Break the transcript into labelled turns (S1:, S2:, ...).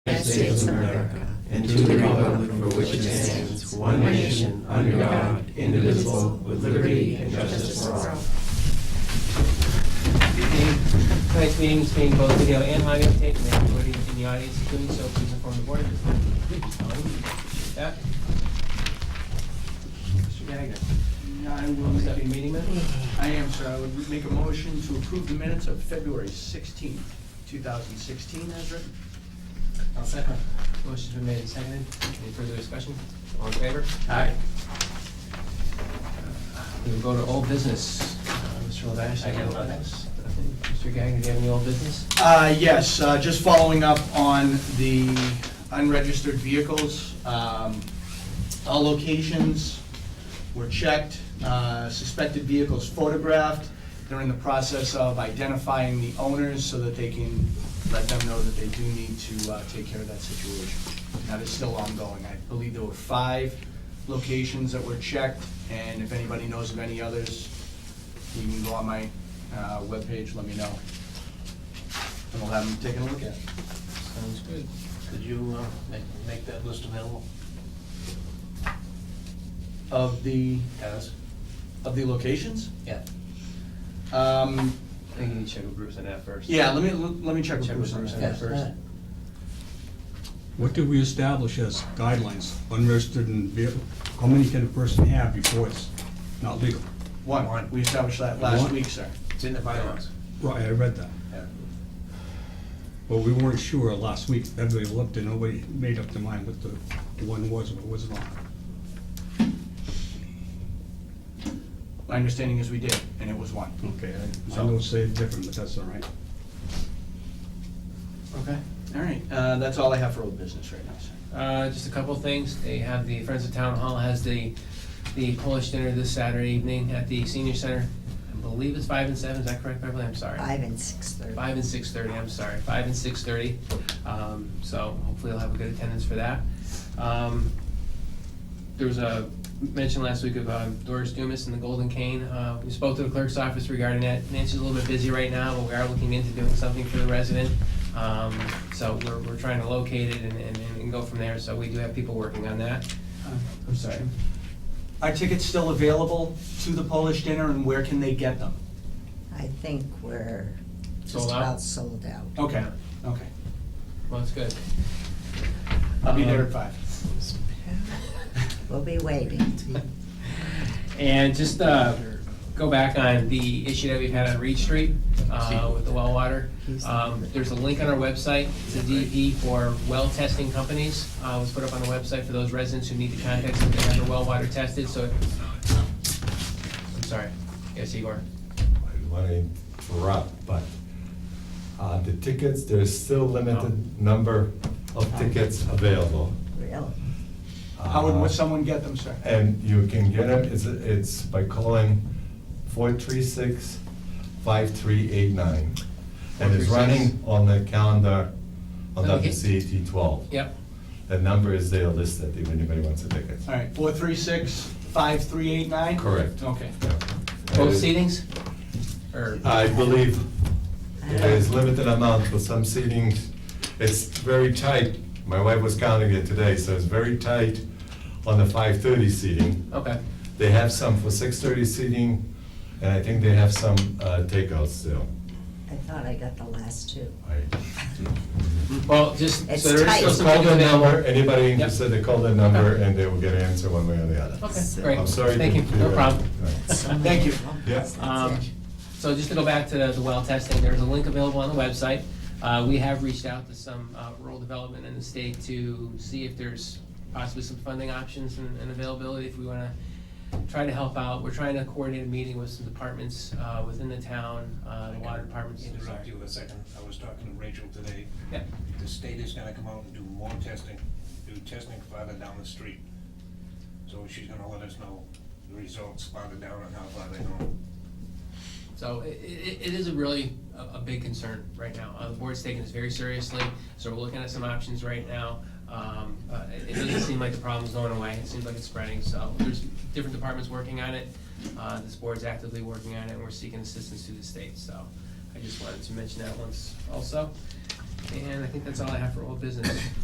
S1: United States of America and to the republic for which it stands, one nation, under God, indivisible, with liberty and justice for all. Tonight's meeting is being both video and audio taped, and everybody in the audience is doing so, please inform the board of this. Yeah? Mr. Gagnon,
S2: I will
S1: what's that,
S2: make
S1: your
S2: a,
S1: meeting minutes?
S2: I am, sir, I would make a motion to approve the minutes of February sixteenth, two thousand sixteen, as written.
S1: I'll second. Motion's been made and seconded. Any further discussion? All in favor?
S2: Aye.
S1: We will go to old business. Uh, Mr. Lavash, I have nothing. Mr. Gagnon, do you have any old business?
S2: Uh, yes, uh, just following up on the unregistered vehicles. Um, All locations were checked, uh, suspected vehicles photographed. They're in the process of identifying the owners so that they can let them know that they do need to uh, take care of that situation. That is still ongoing. I believe there were five locations that were checked, and if anybody knows of any others, you can go on my uh, webpage, let me know and we'll have them taking a look at it.
S1: Sounds good.
S3: Could you uh, make, make that list available?
S2: Of the,
S3: Guys?
S2: of the locations?
S3: Yeah.
S2: Um,
S1: I think you need to check with Bruce on that first.
S2: yeah, let me, let me check with
S1: Check with
S2: Bruce on
S1: Bruce
S2: that
S1: on
S2: first.
S1: that.
S4: What did we establish as guidelines, unregistered and vehicle, how many can a person have before it's not legal?
S2: One,
S3: One.
S2: we established that last
S4: One.
S2: week, sir.
S3: It's in the bylaws.
S4: Right, I read that,
S3: Yeah.
S4: but we weren't sure last week, everybody looked and nobody made up their mind what the one was, what was not.
S2: My understanding is we did, and it was one.
S1: Hmm.
S4: Okay, I, I know it's said different, but that's all right.
S2: Okay. All right, uh, that's all I have for old business right now, sir.
S1: Uh, just a couple of things. They have the Friends of Town Hall has the, the Polish dinner this Saturday evening at the senior center. I believe it's five and seven. Is that correct, Beverly? I'm sorry.
S5: Five and six thirty.
S1: Five and six thirty, I'm sorry, five and six thirty. Um, so hopefully I'll have a good attendance for that. Um, there was a mention last week of um, Doris Dumas and the Golden Cane. Uh, we spoke to the clerk's office regarding that. Nancy's a little bit busy right now, but we are looking into doing something for the resident. Um, so we're, we're trying to locate it and, and, and go from there. So we do have people working on that. I'm sorry.
S2: Uh, Are tickets still available to the Polish dinner, and where can they get them?
S5: I think we're just
S1: Sold out? Oh.
S5: about sold out.
S2: Okay, Um, okay.
S1: Well, that's good.
S2: I'll be there
S1: Um,
S2: at five.
S5: We'll be waiting.
S1: And just uh, go back on the issue that we've had on Reed Street uh, with the well water. Um, There's a link on our website, it's a DEP for well testing companies. Uh, was put up on the website for those residents who need to contact them to have their well water tested, so. I'm sorry, yes, Igor?
S6: I don't want to interrupt, but uh, the tickets, there's still limited number of tickets available.
S5: Really?
S2: How would
S6: Uh,
S2: someone get them, sir?
S6: And you can get them, it's, it's by calling 436-5389. And it's
S1: 436.
S6: running on the calendar on
S1: Okay.
S6: WCAT 12.
S1: Yep,
S6: The number is there listed if anybody wants a ticket.
S2: All right, four three six, five three eight nine?
S6: Correct.
S2: Okay.
S6: Yeah.
S1: both
S6: Uh,
S1: seatings? Or,
S6: I believe
S5: I
S6: there is
S5: don't-
S6: limited amount for some seating. It's very tight. My wife was counting it today, so it's very tight on the five thirty seating.
S1: okay,
S6: They have some for six thirty seating, and I think they have some uh, takeouts still.
S5: I thought I got the last two.
S6: I-
S1: well, just,
S5: It's
S1: so there is still
S5: tight.
S1: some
S6: Call
S1: tickets
S6: the number,
S1: available.
S6: anybody
S1: Yep.
S6: interested, they call the number, and they will get an answer one way or the other.
S1: Okay, great.
S6: I'm sorry. to
S1: Thank you,
S6: be,
S1: no
S6: uh,
S1: problem.
S6: uh,
S5: So many
S1: Thank you.
S5: problems.
S6: Yeah.
S5: That's
S1: Um,
S5: it.
S1: So just to go back to the the well testing, there's a link available on the website. Uh, We have reached out to some uh, rural development in the state to see if there's possibly some funding options and and availability if we want to try to help out. We're trying to coordinate a meeting with some departments uh, within the town, uh, the water departments.
S3: Interrupt you a second. I was talking to Rachel today.
S1: Yeah.
S3: The state is gonna come out and do more testing, do testing farther down the street. So she's gonna let us know the results farther down and how far they go.
S1: So i- i- it is a really a a big concern right now. Uh, The board's taking this very seriously, so we're looking at some options right now. Um, uh, It it doesn't seem like the problem's going away, it seems like it's spreading, so there's different departments working on it. Uh, This board's actively working on it, and we're seeking assistance through the state, so I just wanted to mention that once also. And I think that's all I have for old business.